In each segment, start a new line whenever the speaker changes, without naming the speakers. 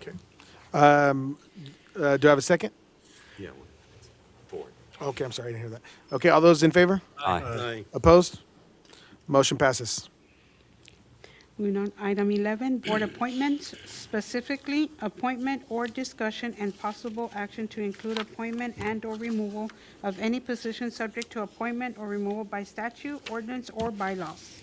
Okay. Um, uh, do I have a second?
Yeah, one, four.
Okay, I'm sorry, I didn't hear that. Okay, all those in favor?
Aye.
Aye.
Opposed? Motion passes.
Moving on, item 11, board appointments, specifically appointment or discussion and possible action to include appointment and/or removal of any position subject to appointment or removal by statute, ordinance, or bylaws.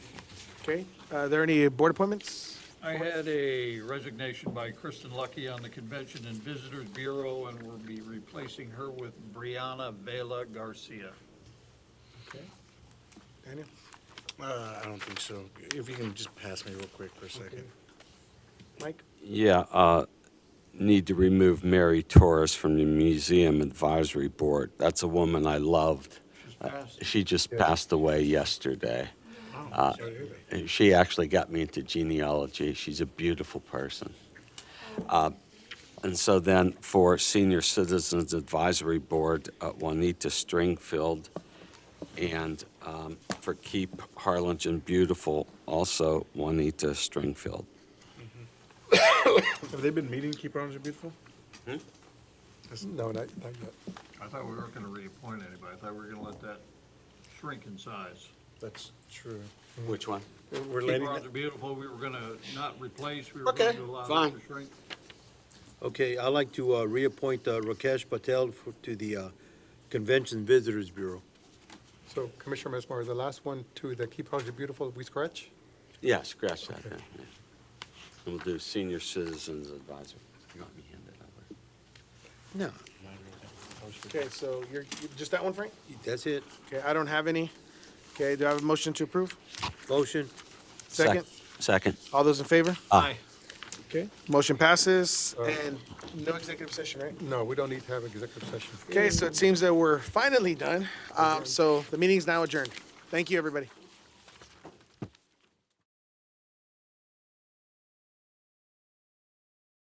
Okay, uh, are there any board appointments?
I had a resignation by Kristen Lucky on the Convention and Visitors Bureau, and we'll be replacing her with Brianna Vela Garcia.
Daniel?
Uh, I don't think so. If you can just pass me real quick for a second.
Mike?
Yeah, uh, need to remove Mary Torres from the Museum Advisory Board. That's a woman I loved.
She's
Uh,
passed.
She just passed away yesterday.
Oh, sorry to hear that.
And She actually got me into genealogy. She's a beautiful person. Uh, And so then for Senior Citizens Advisory Board, uh, Juanita Stringfield, and um, for Keep Harlingen Beautiful, also Juanita Stringfield.
Have they been meeting Keep Orange Beautiful?
No, not, not yet.
I thought we weren't going to reappoint anybody. I thought we were going to let that shrink in size.
That's true.
Which one?
We're
Keep
letting,
Roger Beautiful, we were going to not replace, we were going
Okay,
to allow
fine.
them to shrink.
Okay, I'd like to uh, reappoint uh, Rakesh Patel for- to the uh, Convention Visitors Bureau.
So Commissioner Mesmer, the last one to the Keep Harlingen Beautiful, we scratch?
Yeah, scratch that. yeah, yeah. And We'll do Senior Citizens Advisory. You want me to hand it over?
No.
Okay, so you're, you- just that one, Frank?
That's it.
Okay, I don't have any. Okay, do I have a motion to approve?
Motion?
Sec-
Second?
Second.
All those in favor?
Aye.
Okay. Motion passes,
Uh,
and no executive session, right?
No, we don't need to have executive session.
Okay, so it seems that we're finally done. Um, So the meeting's now adjourned. Thank you, everybody.